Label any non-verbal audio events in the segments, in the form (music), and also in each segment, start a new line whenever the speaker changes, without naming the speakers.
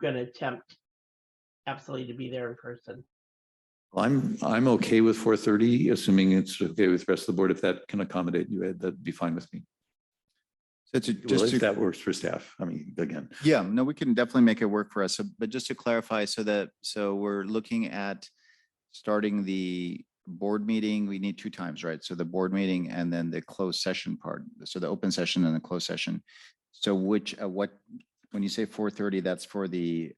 gonna attempt absolutely to be there in person.
I'm, I'm okay with four thirty, assuming it's okay with the rest of the board. If that can accommodate you, Ed, that'd be fine with me.
So to,
Well,
just
if
to,
that works for staff, I mean, again,
yeah, no, we can definitely make it work for us. So- But just to clarify, so that, so we're looking at starting the board meeting, we need two times, right? So the board meeting and then the closed session part. So the open session and the closed session. So which, uh, what, when you say four thirty, that's for the,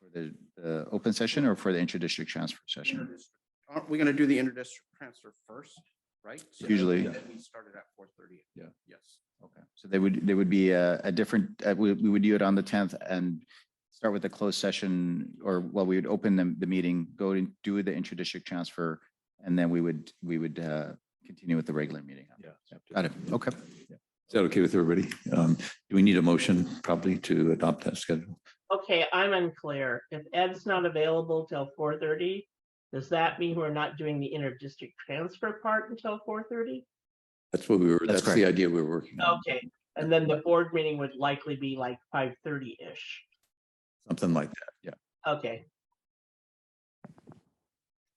for the, uh open session or for the inter-district transfer session?
Interdistrict. Aren't we gonna do the interdistrict transfer first, right? So then-
Usually.
Then we started at four thirty.
Yeah.
Yes.
Okay, so they would, there would be a, a different, uh, we, we would do it on the tenth and start with the closed session, or, well, we would open the, the meeting, go and do the intra-district transfer, and then we would, we would, uh, continue with the regular meeting.
Yeah.
Got it, okay.
is that okay with everybody? Um, do we need a motion probably to adopt that schedule?
Okay, I'm unclear. If Ed's not available till four thirty, does that mean we're not doing the inter-district transfer part until four thirty?
That's what we were,
That's
that's the
correct.
idea we were working on,
Okay, and then the board meeting would likely be like five thirty-ish.
something like that. Yeah.
Okay,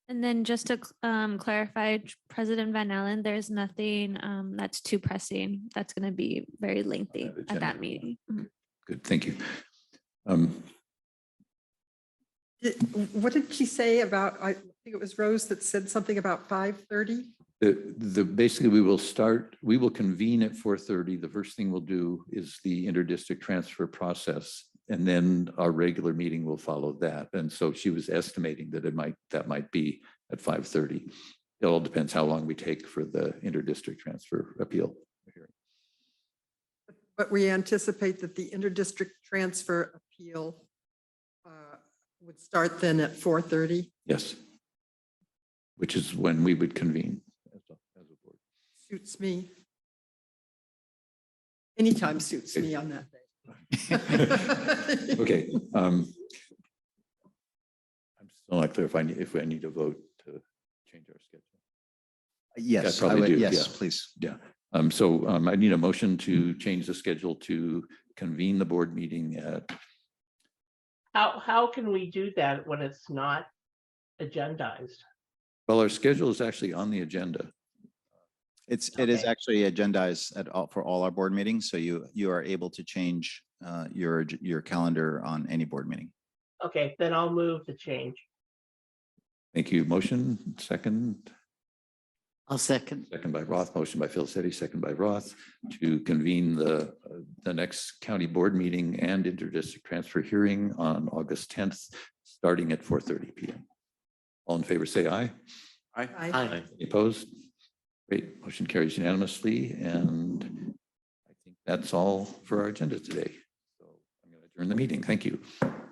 And then just to cl- um, clarify, Tr- President Van Allen, there's nothing um, that's too pressing. That's going to be very lengthy
agenda.
at that meeting. Mhm.
Good, thank you. Um,
Did- What did she say about, I think it was Rose that said something about 5:30?
The, the, basically, we will start, we will convene at four thirty. The first thing we'll do is the interdistrict transfer process. And then our regular meeting will follow that. And so she was estimating that it might, that might be at five thirty. It all depends how long we take for the interdistrict transfer appeal.
But we anticipate that the interdistrict transfer appeal uh, would start then at 4:30.
Yes. Which is when we would convene. as a- as a board.
Suits me. Anytime suits me on that (laughs) day.
Okay. um, I'm still not clear if I, need- if I need to vote to change our schedule.
Yes, I
probably do,
would, yes,
yeah.
please.
Um, so, um, I need a motion to change the schedule to convene the board meeting at,
how, how can we do that when it's not agendized?
well, our schedule is actually on the agenda.
It's, it is
Okay.
actually agendized at all, for all our board meetings, so you, you are able to change, uh, your, ag- your calendar on any board meeting.
Okay, then I'll move the change.
Thank you. Motion, second,
I'll second.
second by Roth, motion by Phil Setti, second by Roth to convene the, uh, the next county board meeting and interdistrict transfer hearing on August tenth, starting at four thirty PM. All in favor, say aye.
I,
Aye.
Aye.
Any Opposed? Great. Motion carries unanimously, and I think that's all for our agenda today. So I'm going to adjourn the meeting. Thank you.